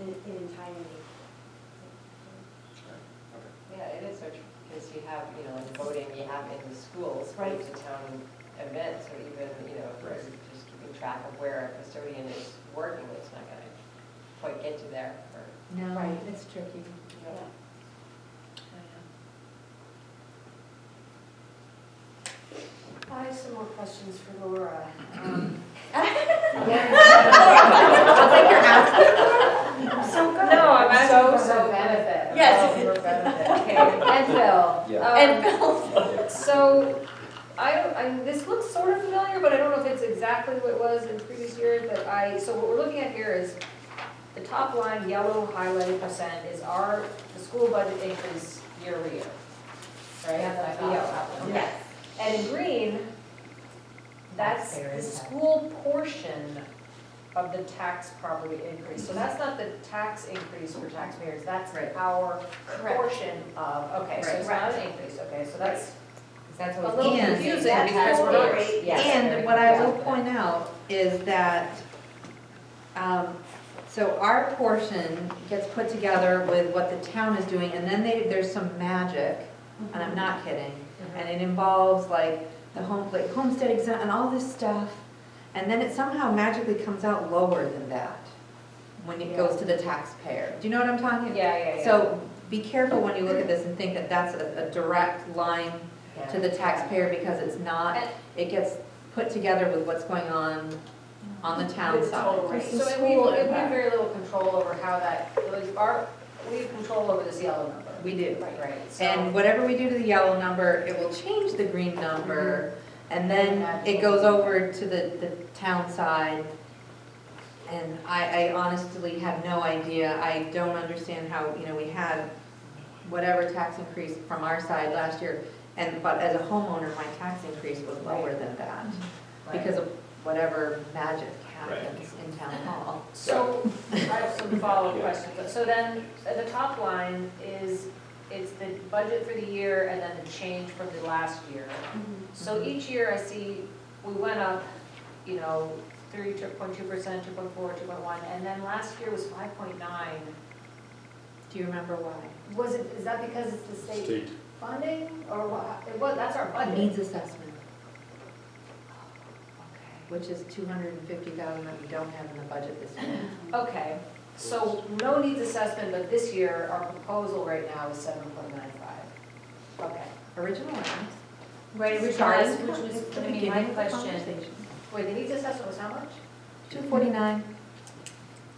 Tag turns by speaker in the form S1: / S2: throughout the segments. S1: in in entirety.
S2: Okay.
S3: Yeah, it is so true, because you have, you know, like voting, you have in the schools, but
S1: Right.
S3: it's a town event, so even, you know, if
S2: Right.
S3: you're just keeping track of where a custodian is working, it's not gonna quite get you there for,
S4: No,
S1: Right.
S4: it's tricky.
S3: you know.
S1: I have some more questions for Laura. Um,
S4: So good.
S5: No, I'm
S4: So,
S5: asking for
S4: so
S5: her
S4: benefit.
S5: Yes.
S4: Oh, for benefit.
S5: Okay.
S4: And Phil.
S2: Yeah.
S4: Um,
S5: And Bill, so, I, don't- I, this looks sort of familiar, but I don't know if it's exactly what it was in previous years, but I, so what we're looking at here is the top line, yellow highlighted percent is our, the school budget increase year over year. Right?
S3: Yeah, that's
S5: The yellow,
S3: awesome.
S5: okay. And in green, that's the
S4: Taxpayer impact.
S5: school portion of the tax property increase. So that's not the tax increase for taxpayers, that's
S3: Right.
S5: our
S4: Correct.
S5: portion of, okay, so it's
S3: Right.
S5: not an increase, okay, so that's
S3: That's
S5: a
S3: what.
S5: little
S4: And
S5: confusing
S3: that
S5: because
S3: has the
S5: we're not.
S3: rate.
S5: yes,
S4: And
S5: very
S4: what I will
S5: confusing.
S4: point out is that, um, so our portion gets put together with what the town is doing, and then they, there's some magic, and I'm
S5: Mm-hmm.
S4: not kidding. And it involves like the home, like homestead exempt and all this stuff, and then it somehow magically comes out lower than that when it goes to the taxpayer. Do you know what I'm talking about?
S5: Yeah, yeah, yeah.
S4: So be careful when you look at this and think that that's a, a direct line to the taxpayer because it's not.
S5: And-
S4: It gets put together with what's going on on the town
S5: With total
S4: side.
S5: rate. So and we, we have very little control over how that, like, our, we have control over this yellow number.
S4: We do.
S5: Right, right, so.
S4: And whatever we do to the yellow number, it will change the green number.
S5: Mm-hmm.
S4: And then it goes over to the, the town side. And I, I honestly have no idea. I don't understand how, you know, we had whatever tax increase from our side last year. And, but as a homeowner, my tax increase was lower than that because of whatever magic happens in town hall.
S5: So, I have some follow-up
S2: Yeah.
S5: questions. So then, at the top line is, it's the budget for the year and then the change from the last year. So each year I see, we went up, you know, three, two point two percent, two point four, two point one, and then last year was five point nine.
S4: Do you remember why?
S5: Was it, is that because it's the state
S6: State,
S5: funding, or what, it was, that's our budget?
S4: Needs assessment.
S5: Okay.
S4: which is two hundred and fifty thousand that we don't have in the budget this year.
S5: Okay, so no needs assessment, but this year, our proposal right now is seven point nine five. Okay.
S4: Original lines.
S5: Right,
S4: which
S5: started,
S4: was-
S5: which
S4: It's
S5: was,
S4: the
S5: I mean, my
S4: beginning of the
S5: question,
S4: conversation.
S5: wait, the needs assessment was how much?
S4: Two forty-nine.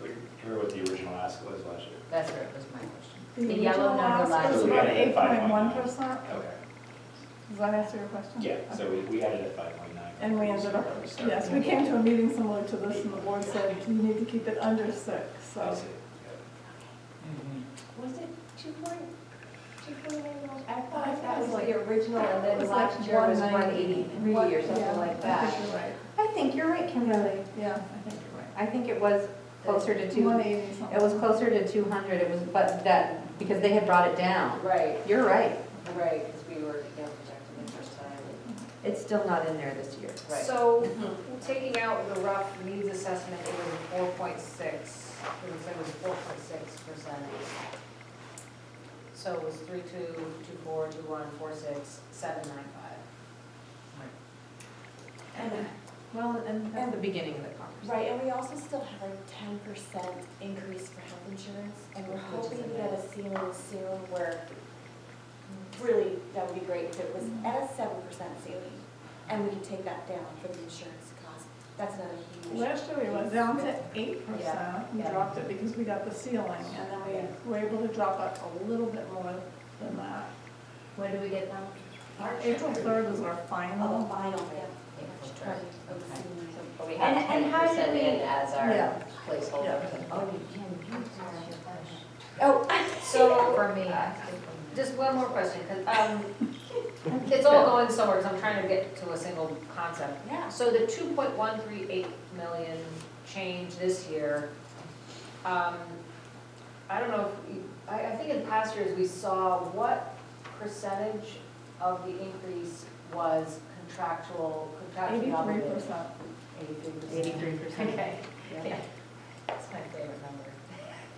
S6: like, remember what the original ask was last year?
S3: That's right, was my question.
S5: The yellow number
S6: So
S5: last
S6: we
S5: year.
S6: added it at
S7: About 8.1%,
S6: 5.9.
S7: does that
S6: Okay,
S7: answer your question?
S6: yeah, so we, we added it at five point nine.
S7: And we ended up, yes, we came to a meeting similar to this, and the board said, you need to keep it under six,
S6: I
S7: so.
S6: see,
S1: Was it two point, two point nine dollars? I thought that was like the original, and then last year was one eighty-three or something like
S7: I
S1: that.
S7: think you're right,
S4: I think you're right, Kimberly.
S7: yeah, I think you're right.
S4: I think it was closer to two,
S7: One
S4: it
S7: eighty something.
S4: was closer to two hundred, it was, but that, because they had brought it down.
S3: Right,
S4: You're right,
S3: right, because we were, you know, projecting the first time. and-
S4: it's still not in there this year.
S3: Right.
S5: So, taking out the rough needs assessment, it was four point six, it was, it was four point six percent. So it was three two, two four, two one, four six, seven nine five.
S1: And-
S4: Well, and that's the beginning of the conversation.
S1: Right, and we also still have our ten percent increase for health insurance, and we're
S3: Which is
S1: hoping to get a ceiling soon where really, that would be great if it was
S3: Mm-hmm.
S1: at a seven percent ceiling, and we could take that down for the insurance cost. That's another huge.
S7: Last year we went down to eight
S5: Yeah,
S7: percent, we
S5: yeah.
S7: dropped it because we got the ceiling, and then we were able to drop it a little bit more than that.
S4: Where do we get them?
S7: Our April third was our
S1: Oh,
S7: final,
S1: final, yeah.
S3: April
S1: March
S3: third.
S1: 20th of the
S3: Okay.
S1: ceiling.
S3: But we had
S1: And- and
S3: ten
S1: how did
S3: percent in
S1: we-
S3: as our
S7: Yeah.
S3: placeholder.
S4: Oh, you can, you can.
S1: Oh,
S5: So,
S4: For me.
S5: Just one more question, 'cause, um, it's all going somewhere, because I'm trying to get to a single concept.
S1: yeah.
S5: So the two point one three eight million change this year, um, I don't know, if you- I, I think in past years, we saw what percentage of the increase was contractual, contractually
S7: eighty-three
S5: obligated?
S7: percent.
S5: Eighty-three percent.
S4: Eighty-three percent.
S5: Okay, yeah, that's my favorite number.